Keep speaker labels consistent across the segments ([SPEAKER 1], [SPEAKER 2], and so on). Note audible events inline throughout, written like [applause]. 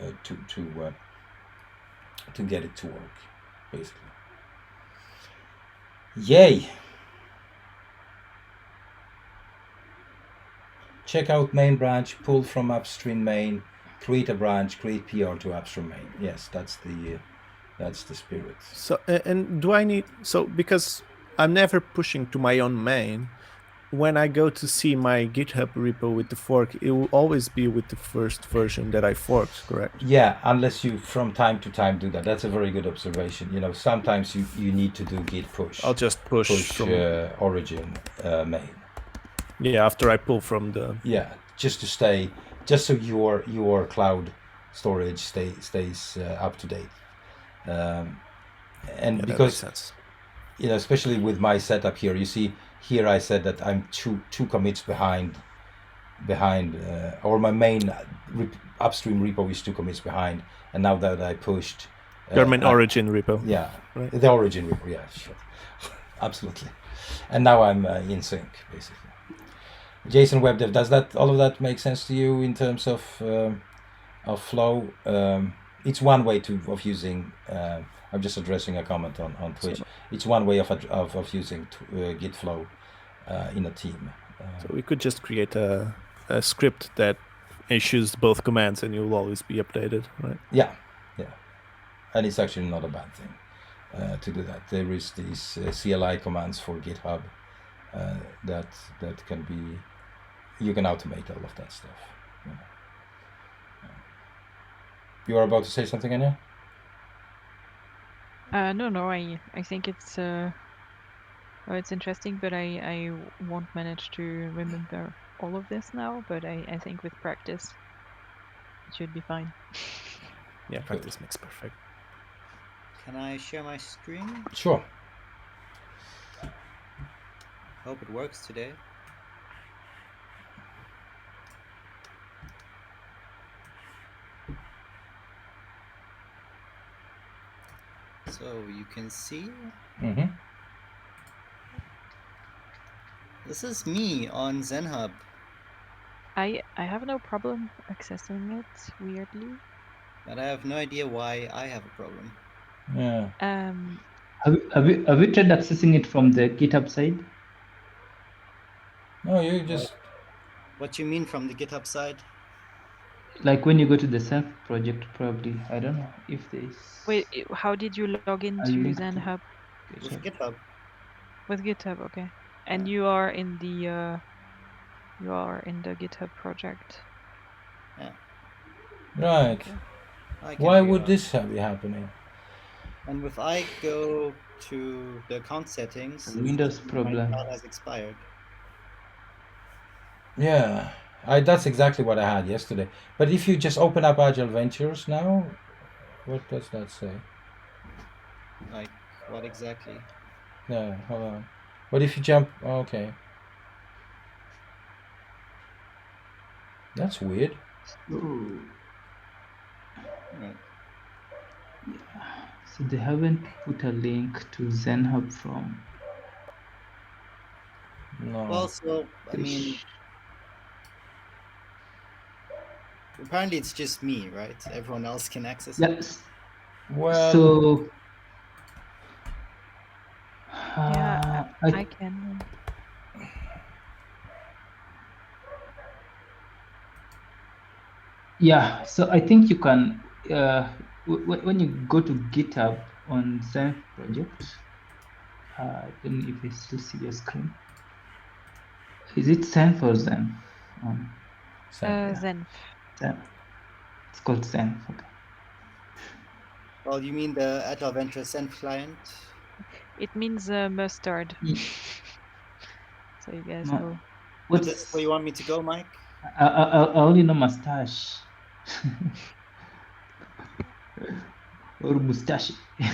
[SPEAKER 1] uh, to to uh, to get it to work, basically. Yay! Check out main branch, pull from upstream main, create a branch, create PR to upstream main. Yes, that's the uh, that's the spirit.
[SPEAKER 2] So a- and do I need so because I'm never pushing to my own main. When I go to see my GitHub repo with the fork, it will always be with the first version that I forked, correct?
[SPEAKER 1] Yeah, unless you from time to time do that. That's a very good observation. You know, sometimes you, you need to do git push,
[SPEAKER 2] I'll just push,
[SPEAKER 1] push
[SPEAKER 2] from
[SPEAKER 1] uh, origin uh, main.
[SPEAKER 2] yeah after I pull from the
[SPEAKER 1] Yeah, just to stay, just so your your cloud storage stay, stays uh, up to date. Um, and
[SPEAKER 2] yeah, that makes
[SPEAKER 1] because
[SPEAKER 2] sense.
[SPEAKER 1] you know, especially with my setup here, you see here I said that I'm two two commits behind, behind, uh, or my main rep, upstream repo is two commits behind, and now that I pushed, uh,
[SPEAKER 2] Your main
[SPEAKER 1] I-
[SPEAKER 2] origin repo.
[SPEAKER 1] yeah,
[SPEAKER 2] Right.
[SPEAKER 1] the origin repo, yeah, sure, [laughs] absolutely, and now I'm uh, in sync basically. Jason WebDev, does that all of that make sense to you in terms of um of flow? Um, it's one way to of using. Uh, I'm just addressing a comment on on Twitch. It's one way of ad- of, of using t- uh, Git flow uh, in a team. Uh,
[SPEAKER 2] So we could just create a, a script that issues both commands and you'll always be updated, right?
[SPEAKER 1] Yeah, yeah, and it's actually not a bad thing uh, to do that. There is these uh, CLI commands for GitHub uh, that that can be you can automate all of that stuff. You, know. You are about to say something, Anya?
[SPEAKER 3] Uh, no, no, I, I think it's, uh, well, it's interesting, but I, I won't manage to remember all of this now. But I, I think with practice, it should be fine.
[SPEAKER 2] Yeah, practice makes perfect.
[SPEAKER 4] Can I share my screen?
[SPEAKER 1] Sure.
[SPEAKER 4] Hope it works today. So you can see
[SPEAKER 1] Mm-hmm.
[SPEAKER 4] this is me on ZenHub.
[SPEAKER 3] I, I have no problem accessing it. Weirdly,
[SPEAKER 4] But I have no idea why I have a problem.
[SPEAKER 1] Yeah.
[SPEAKER 3] um,
[SPEAKER 5] Have, have, you, have you tried accessing it from the GitHub side?
[SPEAKER 1] No, you just
[SPEAKER 4] What you mean from the GitHub side?
[SPEAKER 5] Like when you go to the self project, probably. I don't know if there is.
[SPEAKER 3] wait, i- how did you log into
[SPEAKER 5] linked it.
[SPEAKER 3] ZenHub
[SPEAKER 4] With GitHub.
[SPEAKER 3] with GitHub? Okay, and you are in the, uh, you are in the GitHub project.
[SPEAKER 1] right.
[SPEAKER 4] I can
[SPEAKER 1] Why
[SPEAKER 4] figure
[SPEAKER 1] would
[SPEAKER 4] out.
[SPEAKER 1] this have be happening?
[SPEAKER 4] And if I go to the account settings, it
[SPEAKER 5] Windows
[SPEAKER 4] says my
[SPEAKER 5] problem.
[SPEAKER 4] trial has expired.
[SPEAKER 1] Yeah, I that's exactly what I had yesterday. But if you just open up Agile Ventures now, what does that say?
[SPEAKER 4] Like what exactly?
[SPEAKER 1] No, hold on. But if you jump, oh, okay. That's weird.
[SPEAKER 5] Oh,
[SPEAKER 4] Right.
[SPEAKER 5] so they haven't put a link to ZenHub from.
[SPEAKER 1] No.
[SPEAKER 4] Well, so I mean, apparently it's just me, right? Everyone else can access it.
[SPEAKER 5] Yes.
[SPEAKER 1] Well,
[SPEAKER 5] so.
[SPEAKER 3] Yeah,
[SPEAKER 5] Uh,
[SPEAKER 3] I, I can.
[SPEAKER 5] Yeah, so I think you can uh, w- w- when you go to GitHub on Zen project. Uh, I don't know if I still see your screen. Is it Zen for Zen? Um,
[SPEAKER 1] so-
[SPEAKER 3] Uh, Zenf.
[SPEAKER 5] Zen. It's called Zen. Okay.
[SPEAKER 4] Well, you mean the Agile Venture Send client?
[SPEAKER 3] It means uh, mustard.
[SPEAKER 5] Ye-
[SPEAKER 3] So you guys
[SPEAKER 5] Ma-
[SPEAKER 3] know.
[SPEAKER 4] Is this
[SPEAKER 5] What's
[SPEAKER 4] where you want me to go, Mike?
[SPEAKER 5] I, I, I I only know mustache. [laughs] or mustache. [laughs]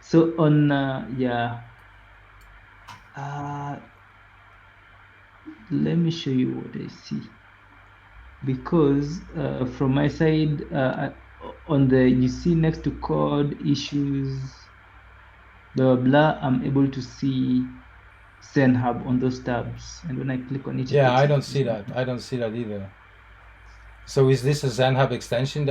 [SPEAKER 5] so on uh, yeah. Uh, let me show you what I see. Because uh, from my side, uh, I- on the you see next to code issues, blah blah blah. I'm able to see Zen Hub on those tabs, and when I click on it, it
[SPEAKER 1] yeah,
[SPEAKER 5] takes
[SPEAKER 1] I
[SPEAKER 5] me
[SPEAKER 1] don't
[SPEAKER 5] to
[SPEAKER 1] see
[SPEAKER 5] Zen
[SPEAKER 1] that.
[SPEAKER 5] Hub.
[SPEAKER 1] I don't see that either. So is this a ZenHub extension